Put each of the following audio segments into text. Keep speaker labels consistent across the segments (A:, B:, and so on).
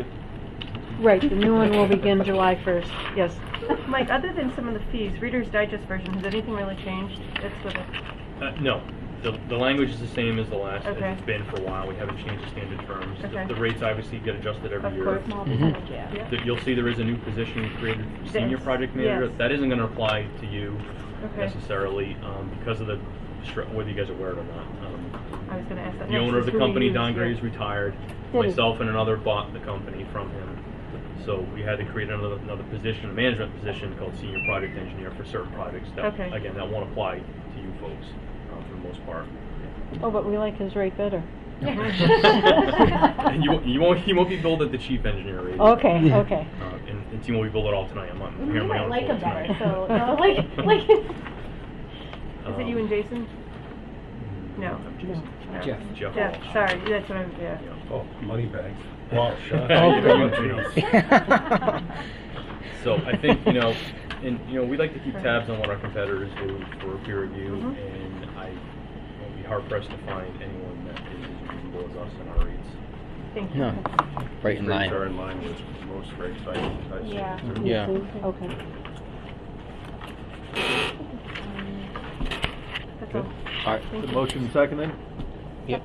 A: Uh,
B: Right, the new one will begin July 1st, yes.
C: Mike, other than some of the fees, Reader's Digest version, has anything really changed? It's with it.
A: Uh, no, the, the language is the same as the last, as
C: Okay.
A: it's been for a while, we haven't changed the standard terms. The-
C: Okay.
A: The rates obviously get adjusted every
C: Of
A: year.
C: course.
A: That You'll see there is a new position created, for senior
C: Yes,
A: project manager,
C: yes.
A: that isn't gonna apply to you
C: Okay,
A: necessarily, um, because of the, stru- whether you guys are aware of it or not. Um,
C: I was gonna ask that.
A: The
C: next,
A: owner of
C: is
A: the
C: who we
A: company,
C: use,
A: Don
C: yeah.
A: Gray, is retired,
B: Yeah.
A: myself and another bought the company from him. So we had to create another, another position, a management position called senior project engineer for certain projects that,
C: Okay.
A: again, that won't apply to you folks, um, for the most part.
B: Oh, but we like his rate better.
A: and you, you won't you won't be billed at the chief engineer rate.
B: Okay, okay.
A: Uh, and, and team will be billed at all tonight. I'm on
D: We
A: here on my
D: might
A: own
D: like
A: call
D: them better,
A: tonight.
D: so, no, like, like,
C: Is it you and Jason?
A: Um,
C: No.
A: Jason.
E: Jeff.
A: Jeff.
C: Yeah, sorry, that's what I'm, yeah.
A: Yeah.
F: Oh, money bags. Wow, shut
A: Oh,
F: up.
A: geez. So I think, you know, and, you know, we like to keep tabs on what our competitors do for peer review,
C: Mhm.
A: and I will be hard pressed to find anyone that is as reasonable as us in our rates.
C: Thank you.
E: No, right in
F: Rates are
E: line.
F: in line with most rates I, I see.
D: Yeah.
E: Yeah.
B: Okay.
C: That's all.
E: All right.
C: Thank you.
F: Motion seconded?
E: Yep.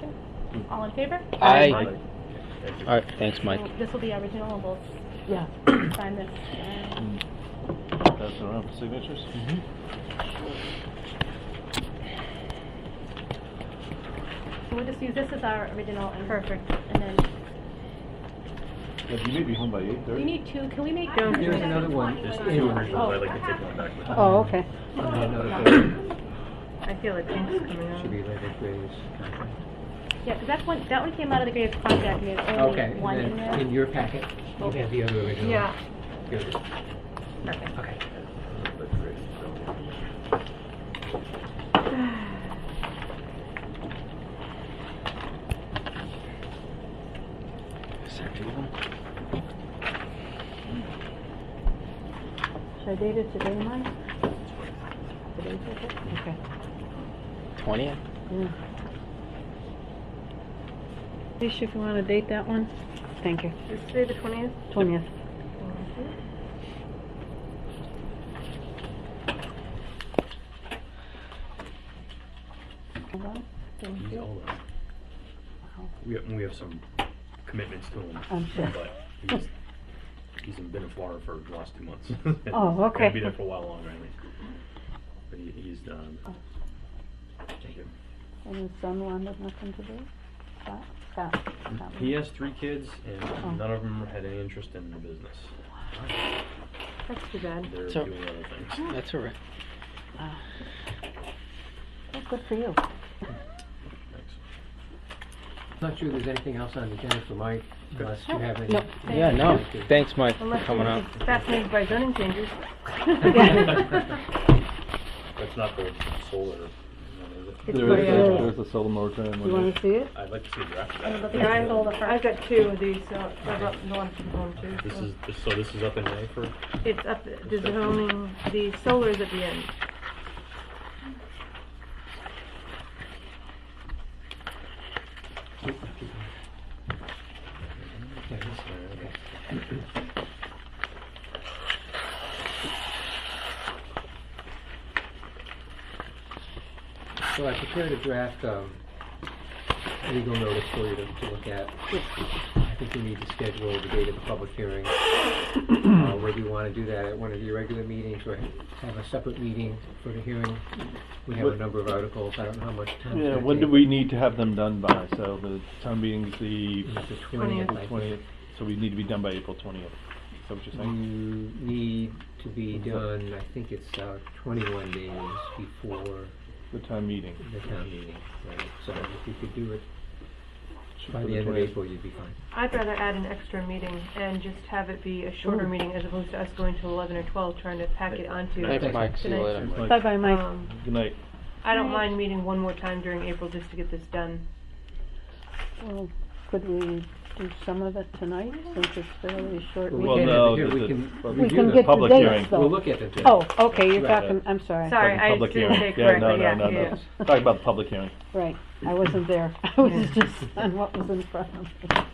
D: all in favor?
E: Aye.
A: Thank you.
E: All right, thanks, Mike.
D: So This will be original, and we'll
B: Yeah.
D: sign this. uh,
F: That's Mm. around for signatures?
D: Mm-hmm. So we'll just use this as our original and.
C: Perfect.
D: And then,
F: Yeah, you may be home by eight
D: we need two, can we make?
C: Don't do
D: Here's
C: it.
D: another one.
A: There's two originals, I'd like to take one back with me.
B: Oh, okay.
C: I feel like things coming on.
D: Yeah, because that's one, that one came out of the Graves contract, and there's only one in there.
G: your packet, you have the other original.
C: Yeah,
G: Okay.
B: Should I date it today, Mike? Today's okay? Okay.
E: Twentieth?
B: Alicia, if you want to date that one? Thank you.
C: is today the twentieth?
B: 20th.
A: He's all up. We have, we have some commitments to him.
B: I'm sure.
A: But he's, he's been in Florida for the last two months.
B: Oh,
A: He's
B: okay.
A: Gonna be there for a while longer, I think. But he, he's, um,
B: Oh.
A: thank you.
B: And his son wanted nothing to do? Scott? Scott? Scott.
A: he has three kids
B: Oh.
A: and none of them had any interest in the business.
C: That's too bad.
A: They're
E: So-
A: doing other things.
E: That's all right.
B: Oh, Good for you.
A: Thanks.
G: Not sure there's anything else on the agenda for Mike, unless you have any.
B: No.
E: Yeah, no, thanks, Mike, for
C: Unless
E: coming up.
C: it's fascinated by zoning changes.
A: That's not the solar, one, is it?
B: It's my, uh,
F: a solar moratorium.
B: You want to see it?
A: I'd like to see a draft of
D: And
A: that.
D: we'll get our solar first.
C: I've got two of these, so I've got the one from home too.
A: This
C: so.
A: is, this- so this is up in May for,
C: It's up, the zoning, the solar's at the end.
G: So I prepared a draft, um, legal notice for you to, to look at. I think we need to schedule the date of the public hearing. Uh, whether you wanna do that at one of your regular meetings or have a separate meeting for the hearing. We have a
H: What-
G: number of articles, I don't know how much time. it's
H: Yeah,
G: gonna
H: when do
G: take.
H: we need to have them done by? So the town meeting's the
G: It's the twentieth, I think.
H: twentieth, so we need to be done by April twentieth, is that what you're saying?
G: You need to be done, I think it's uh, 21 days before
H: The town meeting?
G: the town meeting, right? So if you could do it
H: Shoot
G: by
H: for
G: the end of
H: 20th.
G: April, you'd be fine.
C: I'd rather add an extra meeting and just have it be a shorter meeting as opposed to us going to eleven or twelve trying to pack it onto.
E: Thanks, Mike, see you
C: Tonight.
E: later.
H: Like,
B: Bye-bye, Mike.
C: Um,
H: Good night.
C: I don't mind meeting one more time during April just to get this done.
B: Well, Could we do some of it tonight, since it's fairly a short
G: Well,
H: Well,
G: can
B: meeting?
G: have
H: no,
G: it here.
H: the-
G: We
H: the-
G: can
H: well,
B: We
G: review
B: can
G: the
B: get the
H: public
B: dates,
H: hearing.
B: though.
G: We'll look at it then.
B: Oh, okay, you're
H: Right.
B: talking, I'm sorry.
C: Sorry, I
H: Public
C: didn't
H: hearing.
C: say it
H: Yeah, no,
C: correctly, yeah,
H: no, no.
C: yeah.
H: Talk about the public hearing.
B: Right, I wasn't there. I was just on what was in front of me.